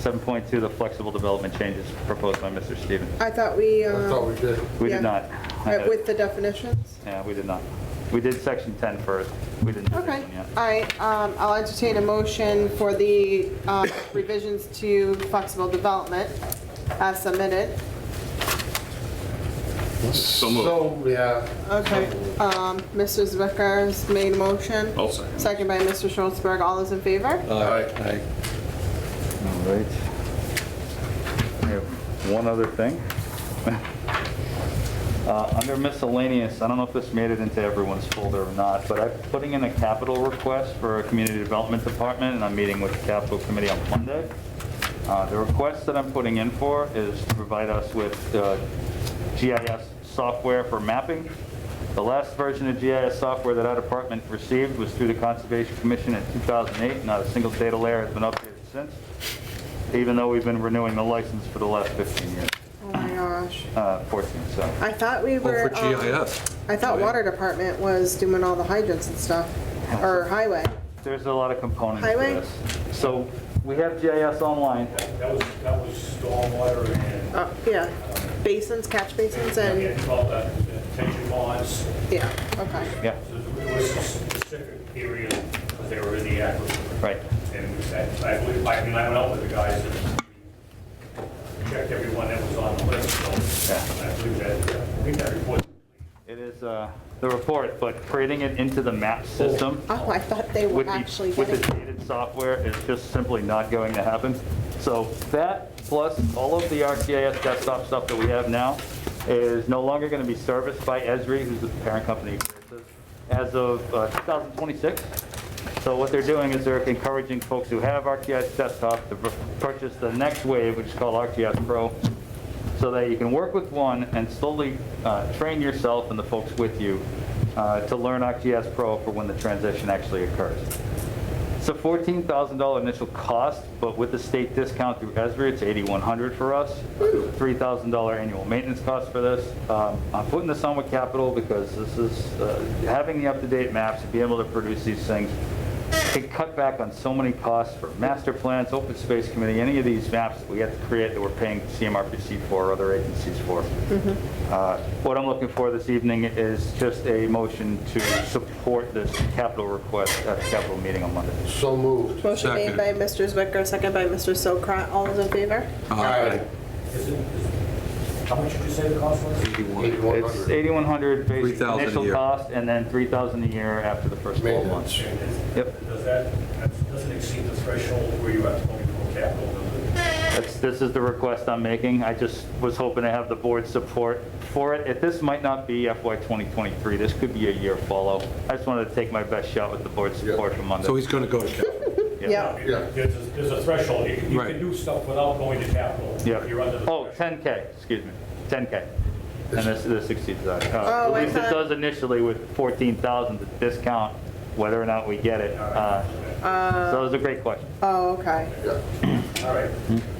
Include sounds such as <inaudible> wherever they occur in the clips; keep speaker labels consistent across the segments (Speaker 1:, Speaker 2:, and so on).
Speaker 1: 7.2, the flexible development changes proposed by Mr. Stevens.
Speaker 2: I thought we,
Speaker 3: I
Speaker 2: uh,
Speaker 3: thought we did.
Speaker 1: We
Speaker 2: yeah.
Speaker 1: did not. I
Speaker 2: right,
Speaker 1: had it.
Speaker 2: with the definitions?
Speaker 1: Yeah, we did not. We did section 10 first. We didn't do this
Speaker 2: Okay.
Speaker 1: one yet.
Speaker 2: All right, um, I'll entertain a motion for the uh, revisions to flexible development as submitted.
Speaker 4: So moved.
Speaker 3: So, yeah,
Speaker 2: Okay, um, Mr. Zwicker's made a motion.
Speaker 4: I'll second.
Speaker 2: Second by Mr. Schultzberg. All those in favor?
Speaker 4: Aye.
Speaker 1: All right. We have one other thing. <laughs> Uh, Under miscellaneous, I don't know if this made it into everyone's folder or not, but I'm putting in a capital request for a community development department, and I'm meeting with the capital committee on Monday. Uh, The request that I'm putting in for is to provide us with uh, GIS software for mapping. The last version of GIS software that our department received was through the Conservation Commission in 2008. Not a single data layer has been updated since even though we've been renewing the license for the last 15 years,
Speaker 2: Oh my gosh.
Speaker 1: uh, 14, so.
Speaker 2: I thought we
Speaker 5: for
Speaker 2: were. um,
Speaker 5: GIS.
Speaker 2: I thought
Speaker 5: Oh, yeah.
Speaker 2: water department was doing all the hydrants and stuff, or highway.
Speaker 1: There's a lot of components to
Speaker 2: Highway?
Speaker 1: this. So we have GIS online,
Speaker 6: That was, that was stormwater and,
Speaker 2: Uh, yeah, basins, catch basins and,
Speaker 6: and all that, attention uh, bonds.
Speaker 2: yeah, okay.
Speaker 1: yeah,
Speaker 6: So There was a specific period because they were in the aquifer.
Speaker 1: right.
Speaker 6: And that- I believe, I mean, I went out with the guys and checked everyone that was on the list, so
Speaker 1: Yeah.
Speaker 6: I believe that, I think that report.
Speaker 1: It is uh, the report, but creating it into the map system
Speaker 2: Oh, I thought they were
Speaker 1: with
Speaker 2: actually
Speaker 1: the, with
Speaker 2: getting,
Speaker 1: the dated software is just simply not going to happen. So that, plus all of the ArcGIS desktop stuff that we have now, is no longer going to be serviced by Esri, who's the parent company, as of uh, 2026. So what they're doing is they're encouraging folks who have ArcGIS desktop to pur- purchase the next wave, which is called ArcGIS Pro, so that you can work with one and slowly uh, train yourself and the folks with you uh, to learn ArcGIS Pro for when the transition actually occurs. It's a $14,000 initial cost, but with the state discount through Esri, it's 8,100 for us. $3,000 annual maintenance cost for this. Um, I'm putting this on with capital because this is, uh, having the up-to-date maps and being able to produce these things can cut back on so many costs for master plans, open space committee, any of these maps that we have to create that we're paying CMRPC for or other agencies for. Uh, What I'm looking for this evening is just a motion to support this capital request at the capital meeting on Monday.
Speaker 3: so moved.
Speaker 2: motion made by Mr. Zwicker, second by Mr. Sokrat. All those in favor?
Speaker 3: Aye.
Speaker 6: Is it- is- How much did you say the cost was?
Speaker 5: 81.
Speaker 1: It's
Speaker 3: 8100.
Speaker 1: 8,100 basic
Speaker 5: 3,000 a
Speaker 1: initial
Speaker 5: year.
Speaker 1: cost and then 3,000 a year after the first 12 months.
Speaker 3: Maintenance.
Speaker 6: And is-
Speaker 1: Yep.
Speaker 6: Does that, that doesn't exceed the threshold where you have to go into capital, does it?
Speaker 1: That's, this is the request I'm making. I just was hoping to have the board's support for it. If This might not be FY 2023, this could be a year follow. I just wanted to take my best shot with the board's support for Monday.
Speaker 5: So he's going to go <laughs> to capital.
Speaker 2: Yeah.
Speaker 3: Yeah.
Speaker 6: There's, a- there's a threshold, you can, you can
Speaker 5: Right.
Speaker 6: do stuff without going to capital. if
Speaker 1: Yeah.
Speaker 6: You're under the.
Speaker 1: Oh,
Speaker 6: threshold.
Speaker 1: 10K, excuse me, 10K. And this, this exceeds that. Uh,
Speaker 2: Oh, I
Speaker 1: At least it
Speaker 2: thought-
Speaker 1: does initially with 14,000 to discount, whether or not we get it. Uh, So it was a great question.
Speaker 2: Oh, okay.
Speaker 3: Yeah.
Speaker 6: All right.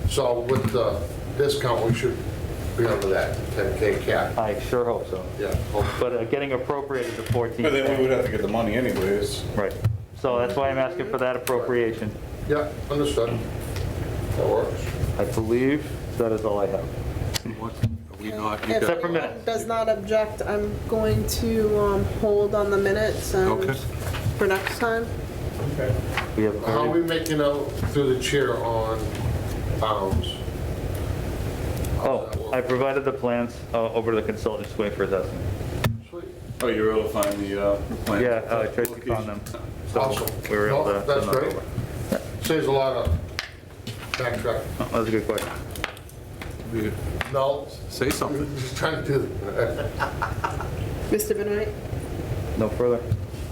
Speaker 3: So with the discount, we should be under that 10K cap.
Speaker 1: I sure hope so.
Speaker 3: Yeah.
Speaker 1: But uh, getting appropriated to 14K.
Speaker 4: But then we would have to get the money anyways.
Speaker 1: Right. So that's why I'm asking for that appropriation.
Speaker 3: Yeah, understood. That works.
Speaker 1: I believe that is all I have.
Speaker 5: What- Are we not? you
Speaker 2: If
Speaker 5: got-
Speaker 1: for
Speaker 2: anyone
Speaker 1: minutes.
Speaker 2: does not object, I'm going to um, hold on the minutes and
Speaker 5: Okay.
Speaker 2: for next time.
Speaker 6: Okay.
Speaker 1: We have,
Speaker 3: How are we making out through the chair on pounds?
Speaker 1: oh, I provided the plans uh, over to the consultant, just waiting for his estimate.
Speaker 3: Sweet.
Speaker 4: Oh, you were able to find the, uh, plan.
Speaker 1: Yeah, uh, Tracy found them. So
Speaker 3: Awesome.
Speaker 1: we were able to.
Speaker 3: No, That's
Speaker 1: send those
Speaker 3: great.
Speaker 1: over.
Speaker 3: Saves a lot of backtrack.
Speaker 1: Oh, That was a good question.
Speaker 5: you
Speaker 3: No,
Speaker 5: Say something.
Speaker 3: just trying to do,
Speaker 2: Mr. Benoit,
Speaker 1: No further?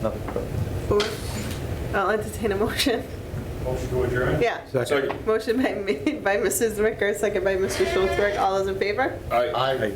Speaker 1: Nothing further.
Speaker 2: board, I'll entertain a motion. <laughs>
Speaker 6: Motion to adjourn?
Speaker 2: Yeah.
Speaker 5: Second.
Speaker 2: Motion by- made by Mrs. Zwicker, second by Mr. Schultzberg. All those in favor?
Speaker 3: I,